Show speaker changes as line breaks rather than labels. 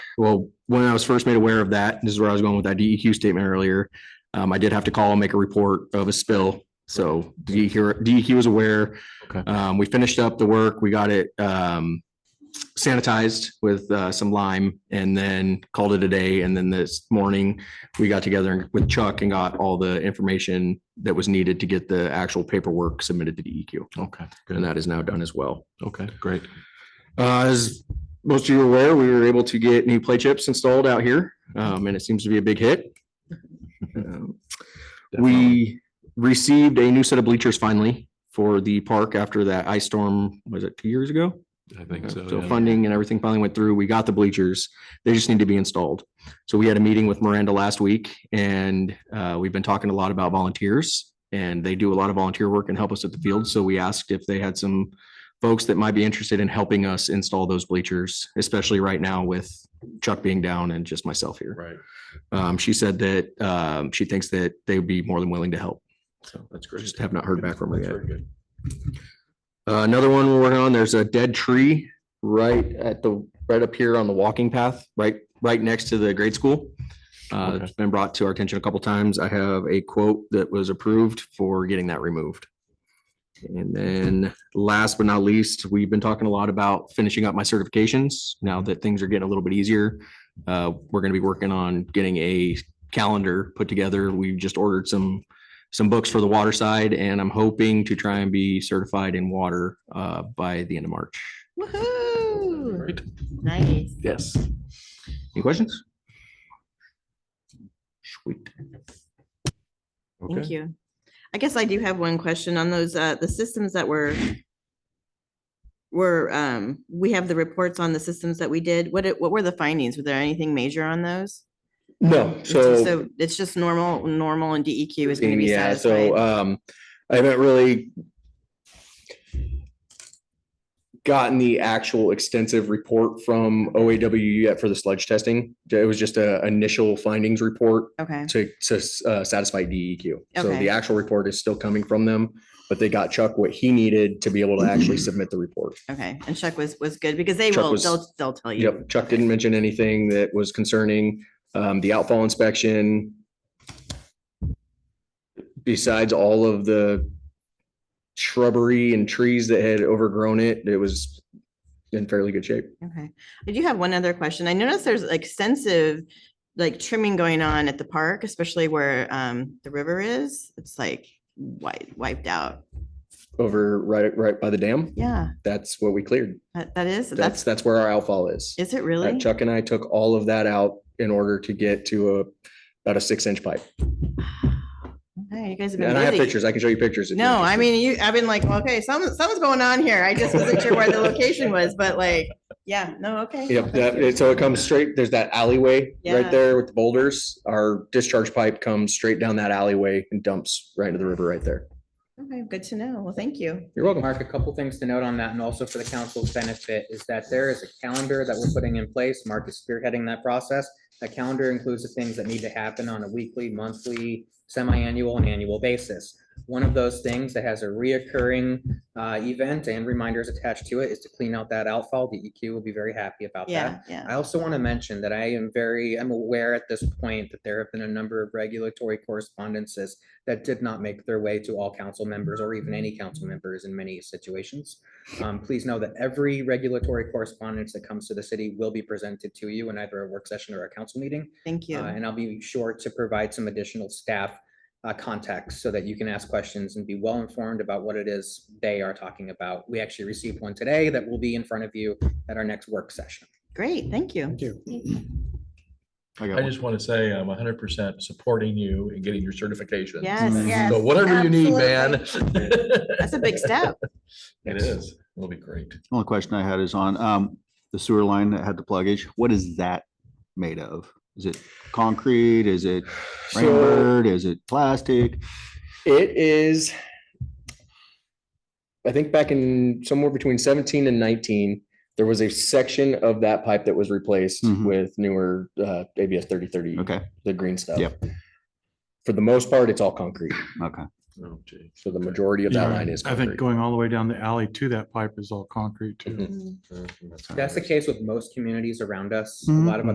well, when I was first made aware of that, this is where I was going with that DEQ statement earlier. Um, I did have to call and make a report of a spill. So E DEQ, DEQ was aware.
Okay.
Um, we finished up the work. We got it, um, sanitized with, uh, some lime and then called it a day. And then this morning, we got together with Chuck and got all the information that was needed to get the actual paperwork submitted to DEQ.
Okay,
And
good.
that is now done as well.
Okay, great.
Uh, as most of you are aware, we were able to get new play chips installed out here, um, and it seems to be a big hit. Um, We received a new set of bleachers finally for the park after that ice storm, was it two years ago?
Definitely. I think so.
So
yeah.
funding and everything finally went through. We got the bleachers. They just need to be installed. So we had a meeting with Miranda last week and uh, we've been talking a lot about volunteers. And they do a lot of volunteer work and help us at the field. So we asked if they had some folks that might be interested in helping us install those bleachers, especially right now with Chuck being down and just myself here.
Right.
Um, She said that um, she thinks that they would be more than willing to help.
So that's great.
Just have not heard back from her
That's
yet.
very good.
Uh, Another one we're working on, there's a dead tree right at the, right up here on the walking path, right, right next to the grade school. Uh,
Okay.
it's been brought to our attention a couple times. I have a quote that was approved for getting that removed. And then last but not least, we've been talking a lot about finishing up my certifications. Now that things are getting a little bit easier. Uh, we're gonna be working on getting a calendar put together. We've just ordered some some books for the water side and I'm hoping to try and be certified in water uh by the end of March.
Woohoo!
Great.
Nice.
Yes. Any questions? Sweet.
Okay.
Thank you. I guess I do have one question on those, uh, the systems that were were, um, we have the reports on the systems that we did. What, it- what were the findings? Was there anything major on those?
No,
It's just
so.
It's just normal, normal and DEQ is going to be
Yeah, so
satisfied.
um, I haven't really gotten the actual extensive report from OAW yet for the sludge testing. It was just a initial findings report
Okay,
to, to uh, satisfy DEQ. So
Okay.
the actual report is still coming from them, but they got Chuck what he needed to be able to actually submit the report.
okay. And Chuck was, was good because they
Chuck
will,
was-
they'll, they'll tell you.
Yep, Chuck didn't mention anything that was concerning, um, the outfall inspection. Besides all of the shrubbery and trees that had overgrown it, it was in fairly good shape.
Okay. I do have one other question. I noticed there's extensive, like trimming going on at the park, especially where um the river is. It's like wiped wiped out.
Over right, right by the dam,
Yeah,
that's what we cleared.
that that is,
That's,
that's,
that's where our outfall is.
is it
Uh,
really?
Chuck and I took all of that out in order to get to a, about a six inch pipe.
Okay, you guys have
And I have
been busy.
pictures. I can show you pictures. if you're
No, I
interested.
mean, you, I've been like, okay, something, something's going on here. I just wasn't sure where the location was, but like, yeah, no, okay.
Yep, that, it- so it comes straight, there's that alleyway
Yeah.
right there with the boulders. Our discharge pipe comes straight down that alleyway and dumps right into the river right there.
Okay, good to know. Well, thank you.
You're welcome.
Mark, a couple things to note on that, and also for the council's benefit, is that there is a calendar that we're putting in place. Mark is spearheading that process. That calendar includes the things that need to happen on a weekly, monthly, semi-annual, and annual basis. One of those things that has a reoccurring uh, event and reminders attached to it is to clean out that outfall. The EQ will be very happy about that.
Yeah, yeah.
I also want to mention that I am very, I'm aware at this point that there have been a number of regulatory correspondences that did not make their way to all council members or even any council members in many situations. Um, please know that every regulatory correspondence that comes to the city will be presented to you in either a work session or a council meeting.
Thank
Uh,
you.
And I'll be sure to provide some additional staff uh, context so that you can ask questions and be well informed about what it is they are talking about. We actually received one today that will be in front of you at our next work session.
Great, thank you.
I just want to say I'm hundred percent supporting you in getting your certification.
Yes.
So whatever you need, man.
That's a big step.
It is. It'll be great.
Only question I had is on um the sewer line that had the pluggage. What is that made of? Is it concrete? Is it
So
rammed? Is it plastic?
it is, I think back in somewhere between seventeen and nineteen, there was a section of that pipe that was replaced
Mhm.
with newer, uh, ABS thirty thirty,
Okay,
the green stuff.
Yep.
For the most part, it's all concrete.
okay.
Oh, gee.
So the majority of that
Yeah,
line is
I think
concrete.
going all the way down the alley to that pipe is all concrete too.
Mhm.
Mm.
Uh,
That's the case with most communities around us. A
Mhm.
lot of